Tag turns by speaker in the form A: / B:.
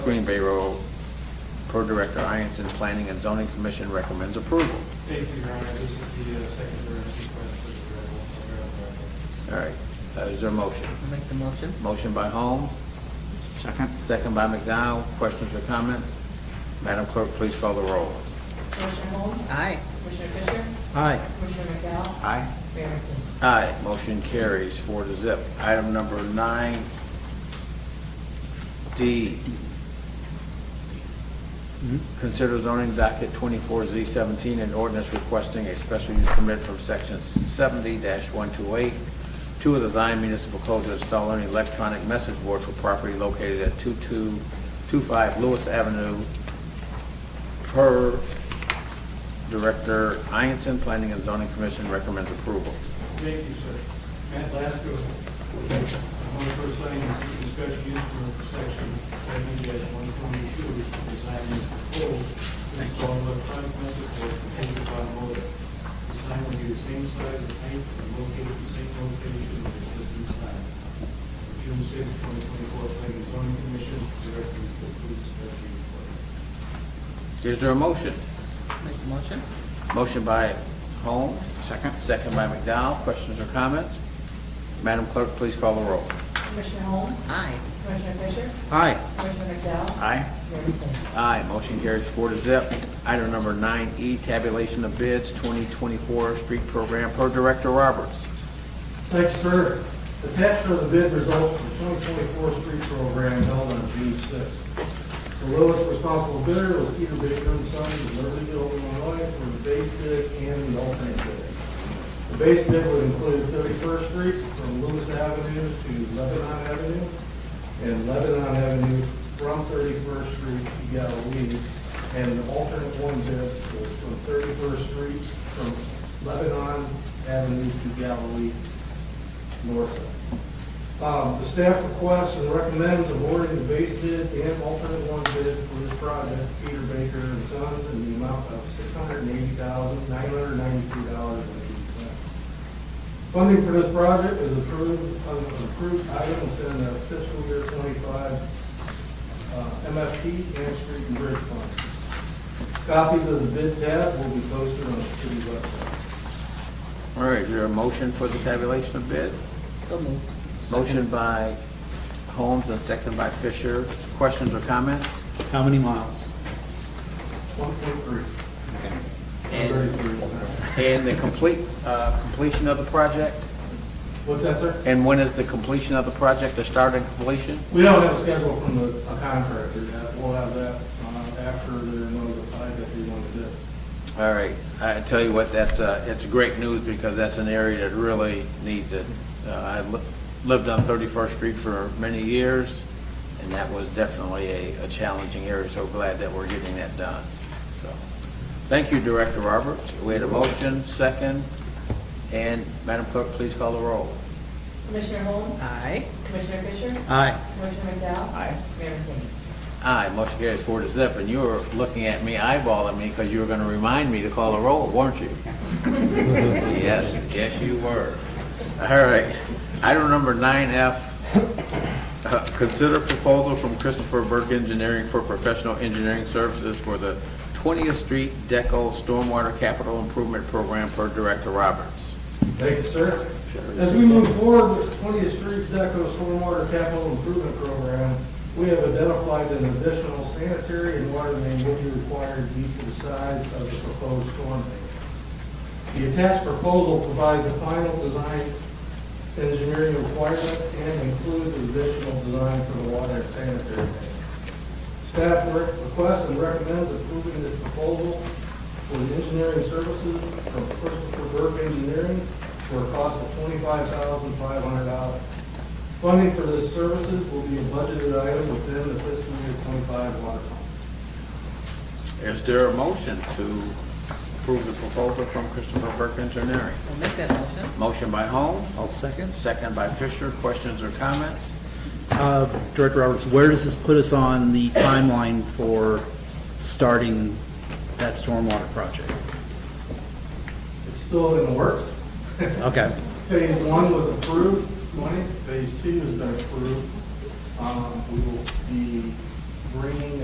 A: Green Bay Road. Pro Director Ianson, Planning and Zoning Commission recommends approval.
B: Thank you, Your Honor. This is the uh, second emergency request for the gravel. so gravel project.
A: All right, uh, is there a motion?
C: Make the motion.
A: Motion by Holmes,
D: Second?
A: second by McDowell. Questions or comments? Madam Clerk, please call the roll.
E: Commissioner Holmes?
C: Aye.
E: Commissioner Fisher?
A: Aye.
E: Commissioner McDowell?
A: Aye.
E: Mayor McKinney?
A: Aye, motion carries four to zip. Item number nine, D. Consider zoning docket twenty-four Z seventeen and ordinance requesting a special use permit from section seventy one two eight, two of the Zion Municipal Code to install an electronic message board for property located at two-two-two-five Lewis Avenue per Director Ianson, Planning and Zoning Commission recommends approval.
B: Thank you, sir. Matt Lasko, on the first line, is the special use permit for section seventy one twenty-two, design is proposed, to install an electronic message board contained by motor. The sign will be the same size and height and located in the same location as the existing sign. June sixth, twenty twenty-four, planning and zoning commission, directly approves special use permit.
A: Is there a motion?
C: Make the motion.
A: Motion by Holmes.
D: Second.
A: Second by McDowell. Questions or comments? Madam Clerk, please call the roll.
E: Commissioner Holmes?
C: Aye.
E: Commissioner Fisher?
A: Aye.
E: Commissioner McDowell?
A: Aye.
E: Mayor McKinney?
A: Aye, motion carries four to zip. Item number nine E, tabulation of bids, 2024 street program per Director Roberts.
B: Thanks, sir. Attached are the bid results for the 2024 street program held on June 6th. The lowest responsible bidder was Peter Baker and Sons of Libertyville, Illinois, for the base bid and the alternate bid. The base bid would include 31st Street from Lewis Avenue to Lebanon Avenue, and Lebanon Avenue from 31st Street to Galilee, and an alternate one bid was from 31st Street from Lebanon Avenue to Galilee north. Um, The staff requests and recommends awarding the base bid and alternate one bid for this project, Peter Baker and Sons, in the amount of six hundred and eighty thousand, nine hundred and ninety-two dollars and eighty cents. Funding for this project is approved, uh, approved items in the fiscal year twenty-five uh, MFP and street and bridge funds. Copies of the bid tab will be posted on the city website.
A: All right, is there a motion for the tabulation of bids?
C: So moved.
A: Motion by Holmes and second by Fisher. Questions or comments?
D: How many miles?
B: One point three.
A: And,
B: Thirty-three.
A: and the complete, uh, completion of the project?
B: What's that, sir?
A: And when is the completion of the project, the start and completion?
B: We don't have a schedule from the a contractor yet. We'll have that uh, after they're notified that they want to do. it.
A: All right, I tell you what, that's, uh, it's great news because that's an area that really needs it. Uh, I li- lived on 31st Street for many years, and that was definitely a, a challenging area, so glad that we're getting that done. So, Thank you, Director Roberts. We had a motion, second, and Madam Clerk, please call the roll.
E: Commissioner Holmes?
C: Aye.
E: Commissioner Fisher?
D: Aye.
E: Commissioner McDowell?
A: Aye.
E: Mayor McKinney?
A: Aye, motion carries four to zip, and you were looking at me eyeballing me because you were going to remind me to call the roll, weren't you? Yes, yes, you were. All right, item number nine F, uh, consider proposal from Christopher Burke Engineering for professional engineering services for the 20th Street Deco Stormwater Capital Improvement Program per Director Roberts.
B: Thank you, sir. As we move forward with the 20th Street Deco Stormwater Capital Improvement Program, we have identified an additional sanitary and water main will be required due to the size of the proposed storm main. The attached proposal provides the final design engineering requirements and includes additional design for the water and sanitary main. Staff re- requests and recommends approving this proposal for the engineering services from Christopher Burke Engineering for a cost of twenty-five thousand five hundred dollars. Funding for this services will be a budgeted item within the fiscal year twenty-five water fund.
A: Is there a motion to approve the proposal from Christopher Burke Engineering?
C: I'll make that motion.
A: Motion by Holmes?
D: I'll second.
A: Second by Fisher. Questions or comments?
D: Uh, Director Roberts, where does this put us on the timeline for starting that stormwater project?
B: It's still in the works.
D: Okay,
B: Phase one was approved, twenty, phase two has been approved. Um, we will be bringing